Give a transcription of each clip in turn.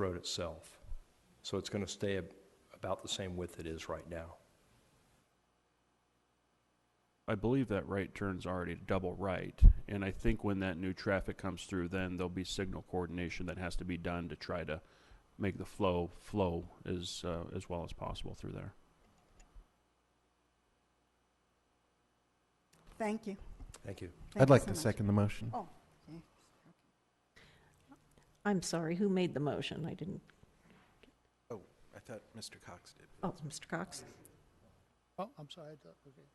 road itself. So it's going to stay ab- about the same width it is right now. I believe that right turn's already double right, and I think when that new traffic comes through, then there'll be signal coordination that has to be done to try to make the flow flow as uh, as well as possible through there. Thank you. Thank you. Thank I'd you like so to much. second the motion. I'm sorry, who made the motion? I didn't, Oh, I thought Mr. Cox did. oh, Mr. Cox. Oh, I'm sorry, I thought, okay.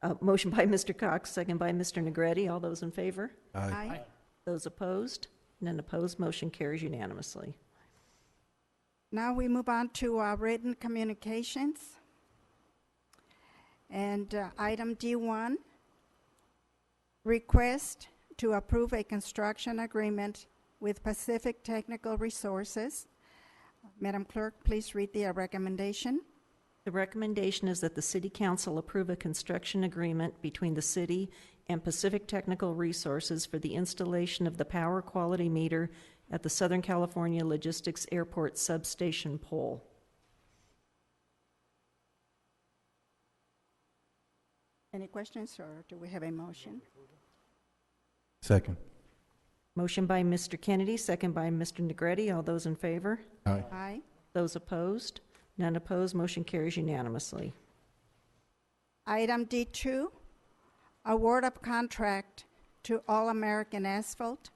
Uh, Motion by Mr. Cox, second by Mr. Negretti. All those in favor? Aye. Aye. Those opposed? None opposed, motion carries unanimously. Now we move on to uh, written communications. And uh, item D1, request to approve a construction agreement with Pacific Technical Resources. Madam Clerk, please read the uh, recommendation. The recommendation is that the City Council approve a construction agreement between the city and Pacific Technical Resources for the installation of the power quality meter at the Southern California Logistics Airport Substation Pole. Any questions, or do we have a motion? Second. Motion by Mr. Kennedy, second by Mr. Negretti. All those in favor? Aye. Aye. Those opposed? None opposed, motion carries unanimously. Item D2, award of contract to All American Asphalt.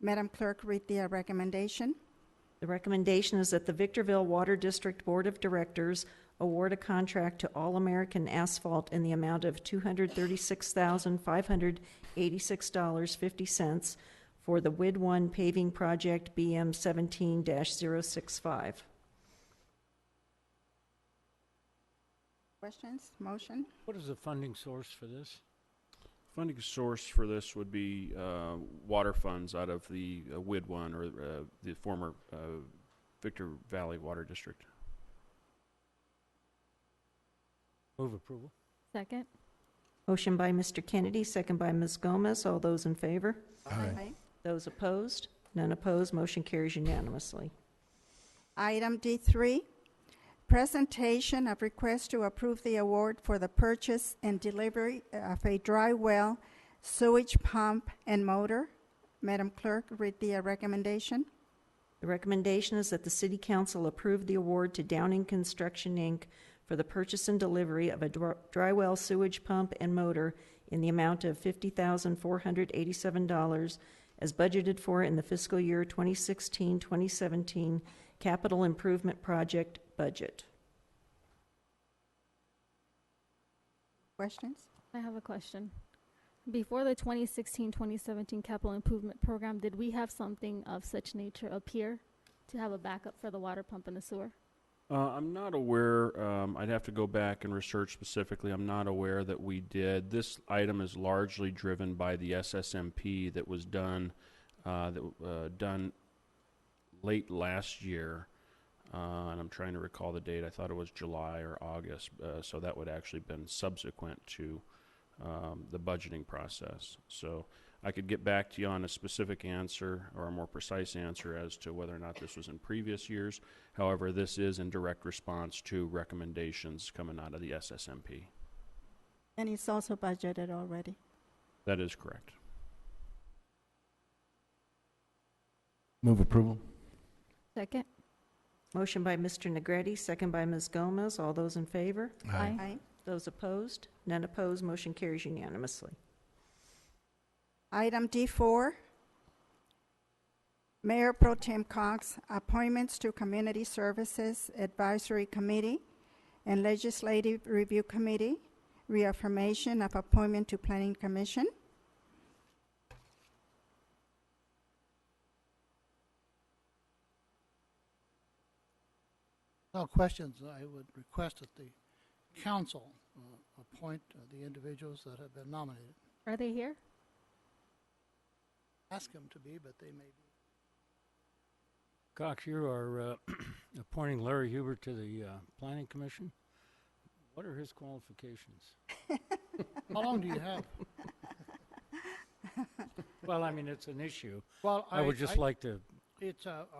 Madam Clerk, read the uh, recommendation. The recommendation is that the Victorville Water District Board of Directors award a contract to All American Asphalt in the amount of $236,586.50 for the WID 1 paving project BM 17-065. Questions, motion? What is the funding source for this? Funding source for this would be uh, water funds out of the uh, WID one or uh, the former uh, Victor Valley Water District. Move approval? Second? Motion by Mr. Kennedy, second by Ms. Gomez. All those in favor? Those opposed? None opposed. Motion carries unanimously. Item D3, presentation of request to approve the award for the purchase and delivery of a dry well sewage pump and motor. Madam Clerk, read the uh, recommendation. The recommendation is that the City Council approve the award to Downing Construction, Inc. for the purchase and delivery of a dr- dry well sewage pump and motor in the amount of $50,487 as budgeted for in the fiscal year 2016-2017 capital improvement project budget. Questions? I have a question. Before the 2016 2017 capital improvement program, did we have something of such nature up here to have a backup for the water pump and the sewer? Uh, I'm not aware. Um, I'd have to go back and research specifically. I'm not aware that we did. This item is largely driven by the SSMP that was done uh, that w- uh, done late last year, uh, and I'm trying to recall the date. I thought it was July or August, uh, so that would actually been subsequent to um, the budgeting process. So I could get back to you on a specific answer or a more precise answer as to whether or not this was in previous years. However, this is in direct response to recommendations coming out of the SSMP. And it's also budgeted already. That is correct. Move approval. Second? Motion by Mr. Negretti, second by Ms. Gomez. All those in favor? Aye. Aye. Those opposed? None opposed. Motion carries unanimously. Item D4, Mayor Pro Tem Cox, appointments to Community Services Advisory Committee and Legislative Review Committee, reaffirmation of appointment to Planning Commission. No questions. I would request that the council uh, appoint uh, the individuals that have been nominated. Are they here? Ask them to be, but they may be. Cox, you are uh, appointing Larry Huber to the uh, Planning Commission. What are his qualifications? How long do you have? Well, I mean, it's an issue. Well, I would just like to. It's a